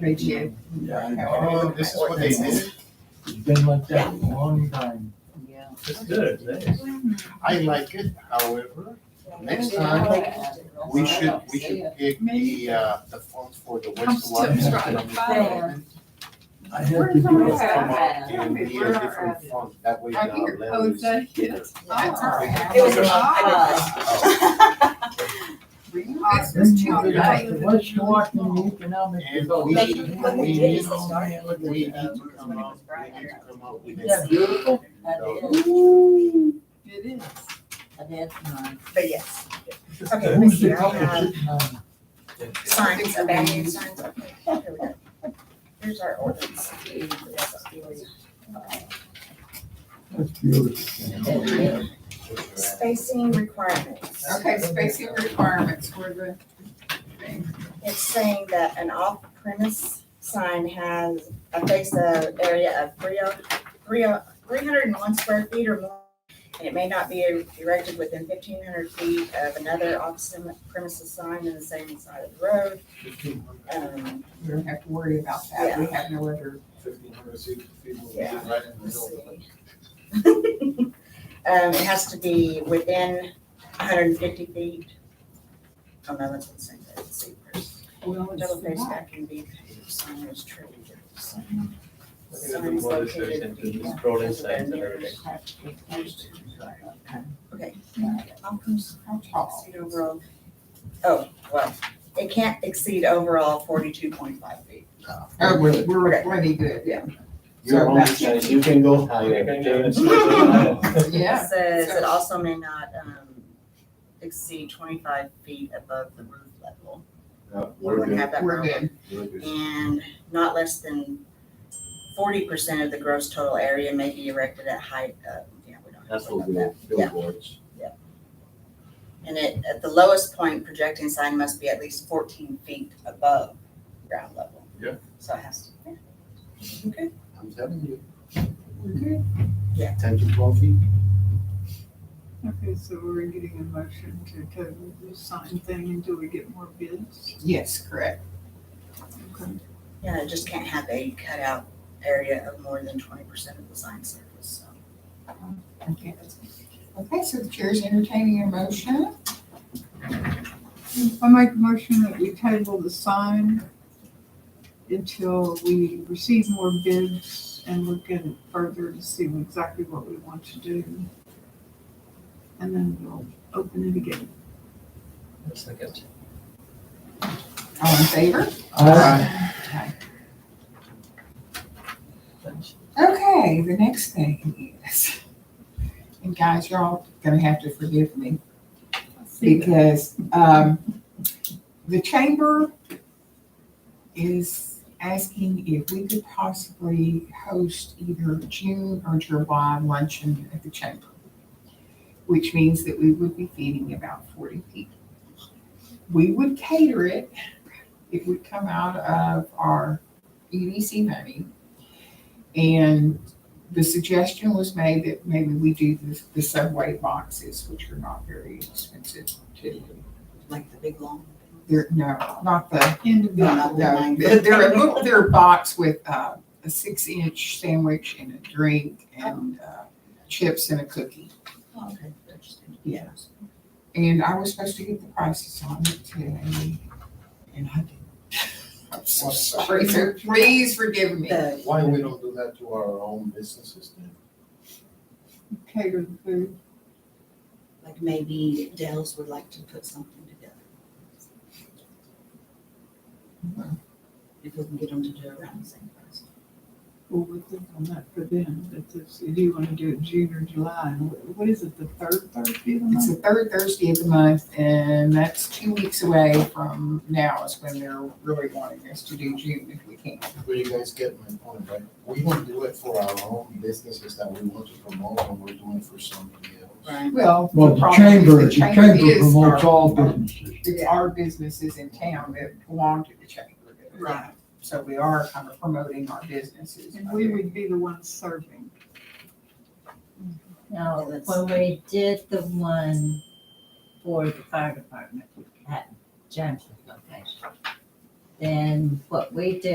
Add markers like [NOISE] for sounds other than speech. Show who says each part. Speaker 1: ratio.
Speaker 2: Oh, this is what they did?
Speaker 3: It's been like that a long time.
Speaker 1: Yeah.
Speaker 4: It's good, thanks.
Speaker 2: I like it, however, next time, we should, we should pick the, uh, the font for the
Speaker 1: Comes
Speaker 2: west
Speaker 1: to
Speaker 2: one.
Speaker 1: obstruct fire.
Speaker 3: I have to do
Speaker 2: It'll
Speaker 3: it.
Speaker 2: come up and be a different font, that way
Speaker 1: I
Speaker 2: our
Speaker 1: think your
Speaker 2: level
Speaker 1: code
Speaker 2: is
Speaker 1: said
Speaker 2: bigger.
Speaker 1: yes.
Speaker 5: It was
Speaker 2: a-
Speaker 5: uh,
Speaker 2: Oh,
Speaker 1: This was too
Speaker 3: Then you have to-
Speaker 1: late.
Speaker 3: Once you walk in the economic
Speaker 2: And
Speaker 3: development. you
Speaker 2: we- we
Speaker 3: know,
Speaker 2: need-
Speaker 3: man, look at
Speaker 2: We need
Speaker 3: that.
Speaker 2: to come up, we need to come up with
Speaker 3: Isn't that
Speaker 2: this.
Speaker 3: beautiful?
Speaker 2: So,
Speaker 1: It is.
Speaker 5: but yes, Okay,
Speaker 3: Who's the
Speaker 5: Missy, I
Speaker 3: couple
Speaker 5: have-
Speaker 3: sitting on?
Speaker 5: signs, abandoned signs, okay, here we go. Here's our ordinance.
Speaker 3: That's beautiful.
Speaker 5: Spacing requirements.
Speaker 1: Okay, spacing requirements for the thing.
Speaker 5: It's saying that an off-premise sign has a face of area of three, oh, three, three hundred and one square feet or more. And it may not be erected within fifteen hundred feet of another off-premises sign in the same side of the road. Um,
Speaker 1: We don't have to worry about that. We have no other.
Speaker 2: Fifteen hundred sixty people,
Speaker 5: Yeah.
Speaker 2: right in the
Speaker 5: let's
Speaker 2: middle.
Speaker 5: see. Um, it has to be within hundred and fifty feet. Oh, no, that's the same, that's super.
Speaker 1: Well, it's
Speaker 5: Double face
Speaker 1: not.
Speaker 5: back and be paved, sign is true.
Speaker 4: Look at the borders, there's the rolling signs and everything.
Speaker 5: Okay.
Speaker 1: How tall?
Speaker 5: Exceed overall, oh, well, it can't exceed overall forty-two point five feet.
Speaker 1: Oh, we're, we're pretty good, yeah.
Speaker 2: You're on this side, you can go higher.
Speaker 1: Yeah.
Speaker 5: It says it also may not, um, exceed twenty-five feet above the roof level.
Speaker 2: [LAUGHS] No,
Speaker 5: We wouldn't have that
Speaker 1: We're
Speaker 5: problem.
Speaker 1: good.
Speaker 2: we're good.
Speaker 5: and not less than forty percent of the gross total area may be erected at height of, yeah, we don't. have
Speaker 2: That's
Speaker 5: to worry
Speaker 2: what
Speaker 5: about
Speaker 2: we,
Speaker 5: that.
Speaker 2: billboards.
Speaker 5: And it, at the lowest point, projecting sign must be at least fourteen feet above ground level.
Speaker 2: Yeah.
Speaker 5: So it has to,
Speaker 2: I'm telling you.
Speaker 1: Okay.
Speaker 5: Yeah.
Speaker 2: Ten to twelve feet.
Speaker 6: Okay, so we're getting a motion to cover the sign thing until we get more bids.
Speaker 1: Yes, correct.
Speaker 5: yeah, it just can't have a cutout area of more than twenty percent of the sign surface, so.
Speaker 1: Okay, that's good. Okay, so the chair is entertaining a motion.
Speaker 6: I make a motion that we table the sign until we receive more bids and look at it further to see exactly what we want to do. And then we'll open it again.
Speaker 4: Second.
Speaker 1: All in favor?
Speaker 3: Uh,
Speaker 1: Okay, the next thing is, and guys, you're all gonna have to forgive me because, um, the chamber is asking if we could possibly host either June or July luncheon at the chamber, which means that we would be feeding about forty people. We would cater it. It would come out of our EDC money. And the suggestion was made that maybe we do the, the subway boxes, which are not very expensive to do.
Speaker 5: Like the big long.
Speaker 1: They're, no, not the,
Speaker 6: Individual.
Speaker 1: no,
Speaker 5: [LAUGHS]
Speaker 1: no, [LAUGHS] they're they're a little, they're a box with, uh, a six inch sandwich and a drink and, uh, chips and a cookie.
Speaker 5: Okay.
Speaker 1: Yes. And I was supposed to get the prices on it today, and I didn't. [LAUGHS] I'm so sorry, so please forgive me.
Speaker 5: The,
Speaker 2: Why we don't do that to our own businesses then?
Speaker 6: Cater the food.
Speaker 5: like maybe Dells would like to put something together. If we can get them to do it around the same price.
Speaker 6: Well, we'll think on that for then, but this, do you want to do it June or July? And wh- What is it, the third Thursday of the
Speaker 1: It's the
Speaker 6: month?
Speaker 1: third Thursday of the month, and that's two weeks away from now is when they're really wanting us to do June if we can.
Speaker 2: But you guys get my point, right? We don't do it for our own businesses that we want to promote and we're doing it for somebody else.
Speaker 5: Right.
Speaker 1: Well,
Speaker 3: Well, the
Speaker 1: problem is
Speaker 3: chamber, the chamber
Speaker 1: is
Speaker 3: promotes
Speaker 1: our-
Speaker 3: all businesses.
Speaker 1: It's our businesses in town that belong to the chamber. that-
Speaker 6: Right.
Speaker 1: So we are kind of promoting our businesses.
Speaker 6: And we would be the ones serving.
Speaker 5: Yeah,
Speaker 7: No,
Speaker 5: Oh, that's-
Speaker 7: when we did the one for the fire department at Jensen's location, then what we did